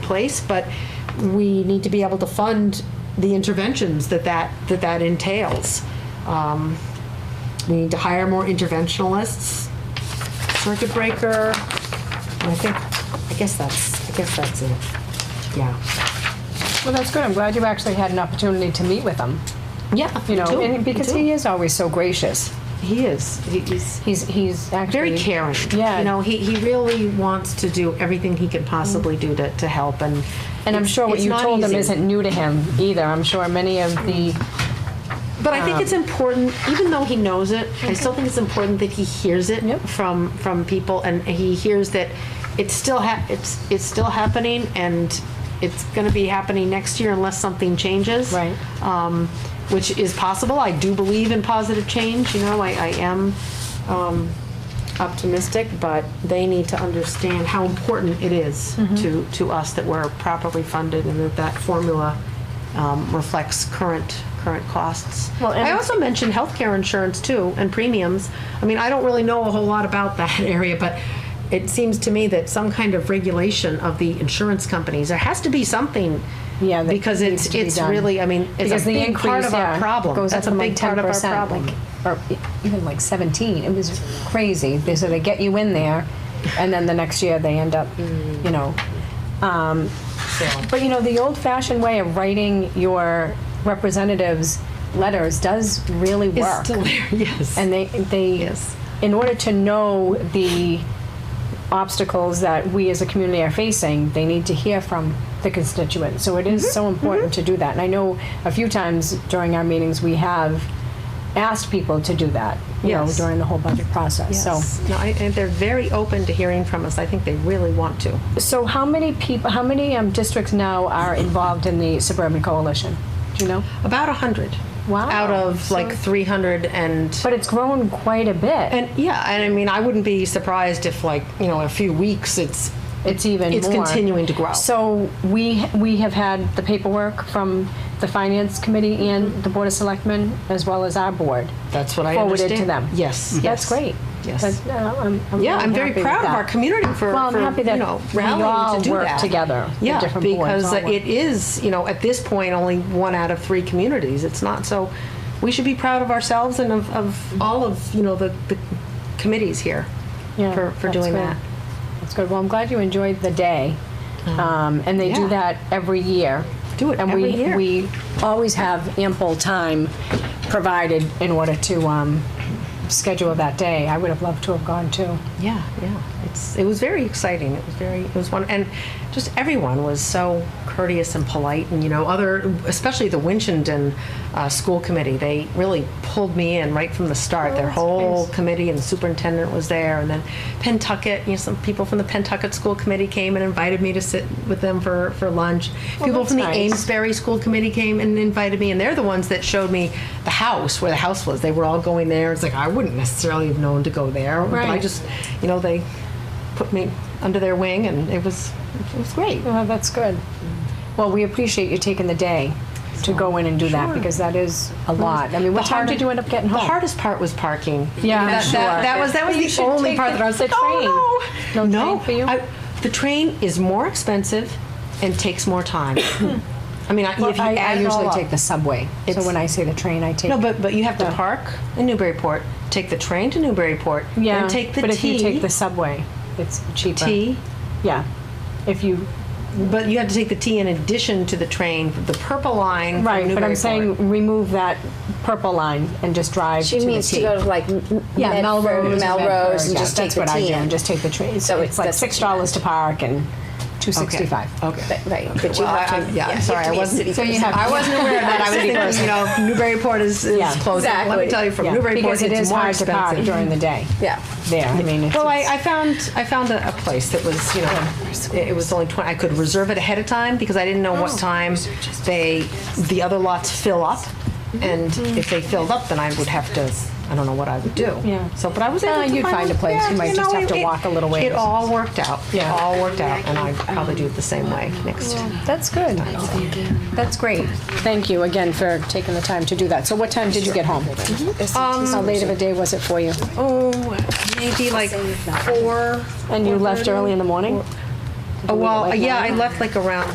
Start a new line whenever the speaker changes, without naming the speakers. place, but we need to be able to fund the interventions that that, that that entails. Um, We need to hire more interventionalists, circuit breaker, and I think, I guess that's, I guess that's it, yeah.
Well, that's good. I'm glad you actually had an opportunity to meet with him.
Yeah,
You
me
know,
too,
and
me
because
too.
he is always so gracious.
He is, He- he's.
He's he's actually
very caring.
Yeah.
You know, he, he really wants to do everything he can possibly do to, to help and.
and I'm
it's-
sure what
it's
you
not
told
easy.
him isn't new to him either. I'm sure many of the
But I think it's
Um,
important, even though he knows it, I still think it's important that he hears it
Yep.
from, from people and he hears that it's still hap, it's, it's still happening and it's gonna be happening next year unless something changes.
Right.
Um, which is possible. I do believe in positive change, you know, I, I am, um, optimistic, but they need to understand how important it is
Mm-hmm.
to, to us that we're properly funded and that that formula um, reflects current, current costs.
Well, and
I
it's-
also mentioned healthcare insurance too, and premiums. I mean, I don't really know a whole lot about that area, but it seems to me that some kind of regulation of the insurance companies, there has to be something.
Yeah, that
Because
needs
it's,
to be
it's
done.
really, I mean,
because
it's a
the
big
increase
part of our
yeah,
problem.
goes
That's
up
a
from
big
like 10
part of our problem.
like, or e- even like 17. It was crazy. They so they get you in there, and then the next year they end up, you know. Um, But you know, the old-fashioned way of writing your representatives letters does really
It's
work.
still there, yes.
And they, they,
Yes.
in order to know the obstacles that we as a community are facing, they need to hear from the constituents. So it is
Mm-hmm.
so important to do that. And I know a few times during our meetings we have asked people to do that, you
Yes.
know, during the whole budget process.
Yes.
So,
No, I, and they're very open to hearing from us. I think they really want to.
so how many people, how many um, districts now are involved in the suburban coalition? Do you know?
About a hundred.
Wow.
Out of like three hundred and.
But it's grown quite a bit.
And yeah, and I mean, I wouldn't be surprised if like you know, in a few weeks, it's
it's even
It's
more.
continuing to grow.
So we we have had the paperwork from the finance committee and the board of selectmen as well as our board.
that's what I
Forwarded to
understand.
them.
Yes,
That's
yes.
great.
Yes.
That's- uh, I'm, I'm
Yeah,
really
I'm very
happy with
proud of
that.
our community for,
Well, I'm
for,
happy that
you know
we
rallying
all
to do
work
that
together, the
Yeah,
different boards
because
all
uh,
work.
it is you know at this point only one out of three communities. It's not so. We should be proud of ourselves and of, of all of you know the, the committees here
Yeah,
for, for
that's
doing
good.
that.
That's good. Well, I'm glad you enjoyed the day. Um, and they do
Uh-huh. yeah.
that every year.
Do it
and
every
we,
year.
we always have ample time provided in order to um, schedule that day. I would have loved to have gone too.
Yeah, yeah. It's it was very exciting. It was very it was one and just everyone was so courteous and polite and you know other especially the Winchendon uh, school committee. They really pulled me in right from the start. Their
Oh, that's
whole
nice.
committee and the superintendent was there and then Pentucket, you know some people from the Pentucket school committee came and invited me to sit with them for for lunch. people
that's
from the
nice.
Amesbury school committee came and invited me and they're the ones that showed me the house where the house was. They were all going there. It's like I wouldn't necessarily have known to go there. But I
Right.
just, you know, they put me under their wing, and it was it was great.
Well, Oh, that's good. Well, we appreciate you taking the day to go in and do that because that is a lot. I mean, what
The
time
hard-
did you end up getting home?
The hardest part was parking.
Yeah, I'm
that,
sure.
that, that was that was
You
the
should
only
take
part
the-
that I was like,
the
oh no,
train. No
no.
train for you?
I, the train is more expensive and takes more time. I mean, I,
Well,
if you
I, I
add it all
usually
up-
take the subway. So
It's-
when I say the train, I take.
No, but but you have to
the-
park in Newburyport, take the train to Newburyport,
yeah.
and take the
but
T.
if you take the subway, it's cheaper.
T.
Yeah. If you
But you have to take the T in addition to the train, the purple line. from
right, but I'm
Newburyport.
saying remove that purple line and just drive.
She
to
means
the
to
T.
go to like M- M-
yeah,
Medford,
Melrose,
Melrose, and
yeah,
just take
that's
the
what I do.
T in.
And just take the train.
So
So it's
it's-
like
that's what
six
she
dollars to park and two
Okay.
sixty-five.
Okay.
Right, but you
Well,
have
I-
to.
I- yeah, I'm sorry, I wasn't,
So
I wasn't aware of that. I was thinking, you know, Newburyport is,
Yeah.
is closing. Let me
Exactly.
tell you, from Newburyport,
because it
it's
is
more
hard to park
expensive.
during the day.
Yeah.
There, Oh, I mean, it's,
Well, I,
it's-
I found, I found a, a place that was, you know, it it was only 20, I could reserve it ahead of time because I didn't know what time they, the other lots fill up. And if they filled up, then I would have to, I don't know what I would do.
Yeah.
So, but I was
Uh,
able to find.
you'd find a place.
yeah,
You might just
know,
have to
it-
walk a little ways.
It all worked out. It
Yeah.
all worked out, Um, and I'd probably do it the same way next time.
that's good. That's great. Thank you again for taking the time to do that. So, what time did you get home? How late of a day was it for you?
Oh, maybe like four.
And you left early in the morning. Did you
Oh,
leave it
well,
like
yeah,
that?
I left like around